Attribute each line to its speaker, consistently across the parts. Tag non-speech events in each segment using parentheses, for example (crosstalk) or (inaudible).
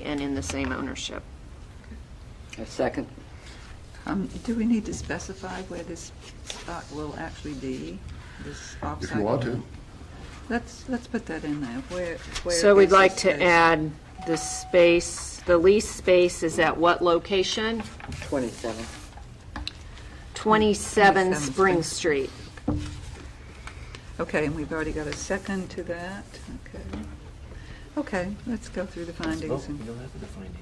Speaker 1: and in the same ownership.
Speaker 2: A second.
Speaker 3: Um, Do we need to specify where this spot will actually be, this offsite?
Speaker 4: If you want to,
Speaker 3: Let's, let's put that in there, where, where.
Speaker 1: So we'd
Speaker 3: is
Speaker 1: like
Speaker 3: this
Speaker 1: to
Speaker 3: space?
Speaker 1: add the space, the lease space is at what location?
Speaker 2: 27.
Speaker 1: 27
Speaker 3: 27
Speaker 1: Spring
Speaker 3: Spring.
Speaker 1: Street.
Speaker 3: Okay, and we've already got a second to that, okay. Okay, let's go through the
Speaker 5: Let's vote.
Speaker 3: findings. and-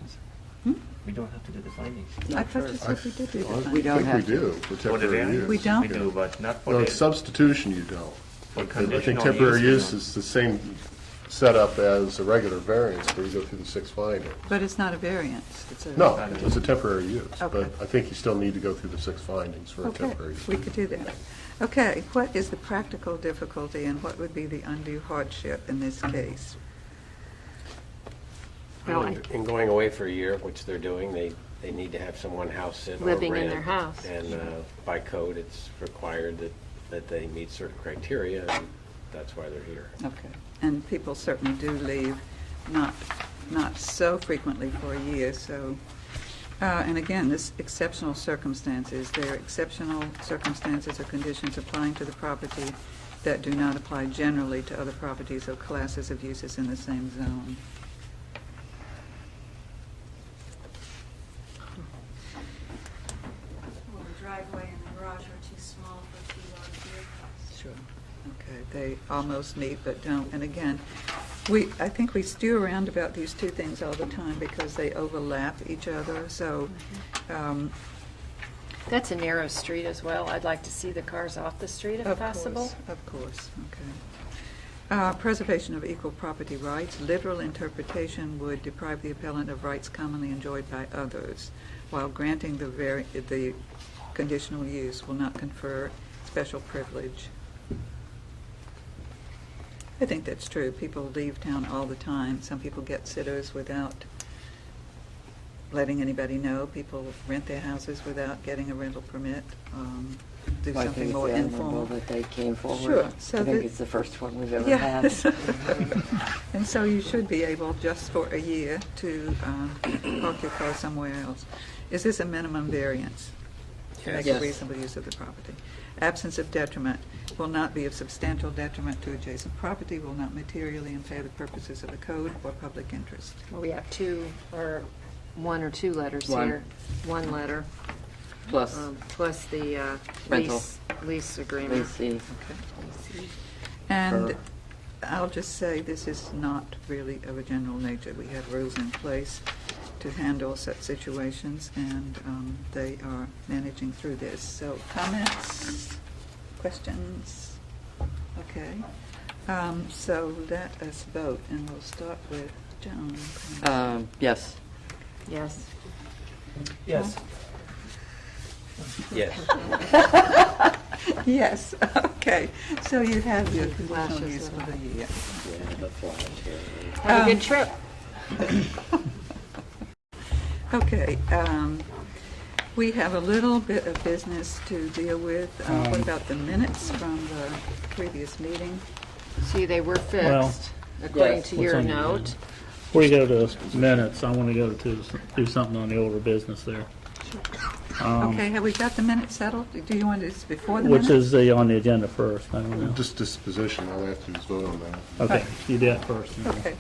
Speaker 3: Hmm?
Speaker 5: We don't have to do the findings. We don't have to do the findings.
Speaker 3: I thought you said we did do the
Speaker 4: I
Speaker 3: findings.
Speaker 2: don't
Speaker 4: think we
Speaker 2: have to.
Speaker 4: do for
Speaker 5: For the
Speaker 4: temporary
Speaker 5: variance,
Speaker 4: use.
Speaker 3: We don't?
Speaker 5: We do, but not for
Speaker 4: No,
Speaker 5: the.
Speaker 4: it's substitution you don't.
Speaker 5: for
Speaker 4: I think
Speaker 5: conditional
Speaker 4: temporary
Speaker 5: we
Speaker 4: use
Speaker 5: don't.
Speaker 4: is the same setup as a regular variance where you go through the six findings.
Speaker 3: But it's not a variance, it's a.
Speaker 4: No, it's a temporary use, but
Speaker 3: Okay.
Speaker 4: I think you still need to go through the six findings for a
Speaker 3: Okay,
Speaker 4: temporary. use.
Speaker 3: we could do that. Okay, what is the practical difficulty and what would be the undue hardship in this case?
Speaker 1: Well, I-
Speaker 6: And going away for a year, which they're doing, they, they need to have someone house it or rent.
Speaker 1: Living in their house.
Speaker 6: And uh, by code, it's required that, that they meet certain criteria, and that's why they're here.
Speaker 3: Okay. And people certainly do leave, not, not so frequently for a year, so, uh, and again, this exceptional circumstances, there are exceptional circumstances or conditions applying to the property that do not apply generally to other properties or classes of uses in the same zone.
Speaker 7: Well, the driveway and the garage are too small for two large vehicles.
Speaker 3: Sure. Okay, they almost meet but don't. And again, we, I think we stew around about these two things all the time because they overlap each other, so, um,
Speaker 1: That's a narrow street as well. I'd like to see the cars off the street if
Speaker 3: Of
Speaker 1: possible.
Speaker 3: course, Of course, okay. Uh, Preservation of equal property rights, literal interpretation would deprive the appellant of rights commonly enjoyed by others, while granting the very, the conditional use will not confer special privilege. I think that's true. People leave town all the time. Some people get sitters without letting anybody know. People rent their houses without getting a rental permit, um, do
Speaker 2: I
Speaker 3: something
Speaker 2: think
Speaker 3: more
Speaker 2: it's admirable
Speaker 3: informal.
Speaker 2: that they came forward.
Speaker 3: Sure, so
Speaker 2: I think
Speaker 3: the-
Speaker 2: it's the first one we've ever had.
Speaker 3: Yes. (laughs) And so you should be able, just for a year, to um, park your car somewhere else. Is this a minimum variance? To make a
Speaker 2: Yes.
Speaker 3: reasonable use of the property. Absence of detriment will not be of substantial detriment to adjacent property, will not materially impair the purposes of the code or public interest.
Speaker 1: Well, We have two, or one or two letters
Speaker 2: One.
Speaker 1: here. One letter,
Speaker 2: Plus,
Speaker 1: um, plus the uh,
Speaker 2: Rental.
Speaker 1: lease, lease agreement.
Speaker 2: let's see.
Speaker 3: And
Speaker 2: Sure.
Speaker 3: I'll just say, this is not really of a general nature. We have rules in place to handle such situations, and um, they are managing through this. So comments, questions? Okay. Um, So let us vote, and we'll start with Joan.
Speaker 2: Um, Yes.
Speaker 1: Yes.
Speaker 5: Yes.
Speaker 6: Yes.
Speaker 3: Yes, (laughs) okay. So you have your conditional
Speaker 1: Flashes
Speaker 3: use
Speaker 1: of
Speaker 3: for the year.
Speaker 6: Yeah, the flash here.
Speaker 1: Have a
Speaker 3: Um,
Speaker 1: good trip.
Speaker 3: Okay, um, we have a little bit of business to deal with. Uh, What about the minutes from the previous meeting?
Speaker 1: See, they were
Speaker 8: Well,
Speaker 1: fixed, according
Speaker 2: yes.
Speaker 1: to your
Speaker 8: on your
Speaker 1: note.
Speaker 8: Before you go to minutes, I want to go to do something on the older business there,
Speaker 3: Okay, have we got the minutes settled? Do you want this before the minutes?
Speaker 8: um, which is the, on the agenda first, I don't know.
Speaker 4: Just disposition, all I have to do is vote on that.
Speaker 8: Okay, you do it first. and then-
Speaker 3: Okay,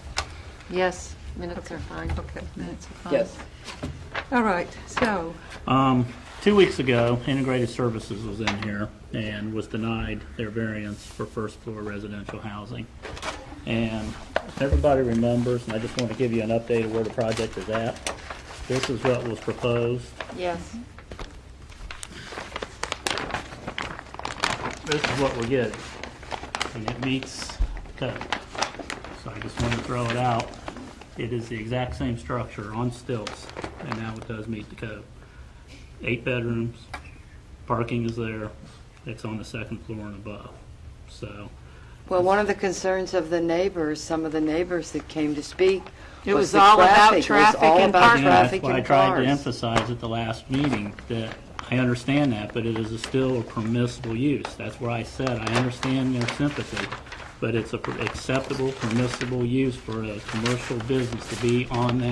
Speaker 1: Yes, minutes are fine.
Speaker 3: okay, minutes are fine.
Speaker 2: Yes.
Speaker 3: All right, so,
Speaker 8: Um, two weeks ago, Integrated Services was in here and was denied their variance for first floor residential housing. And everybody remembers, and I just want to give you an update of where the project is at. This is what was proposed.
Speaker 1: Yes.
Speaker 8: This is what we're getting. And it meets code. So I just want to throw it out. It is the exact same structure on stilts, and now it does meet the code. Eight bedrooms, parking is there, it's on the second floor and above. So
Speaker 2: Well, one of the concerns of the neighbors, some of the neighbors that came to speak,
Speaker 1: It was
Speaker 2: the
Speaker 1: all about
Speaker 2: It was
Speaker 1: traffic
Speaker 2: all
Speaker 1: and
Speaker 2: about
Speaker 1: parking.
Speaker 8: Yeah,
Speaker 2: traffic and
Speaker 8: That's why I tried to
Speaker 2: cars.
Speaker 8: emphasize at the last meeting that I understand that, but it is a still a permissible use. That's where I said, I understand their sympathy, but it's a per- acceptable, permissible use for a commercial business to be on that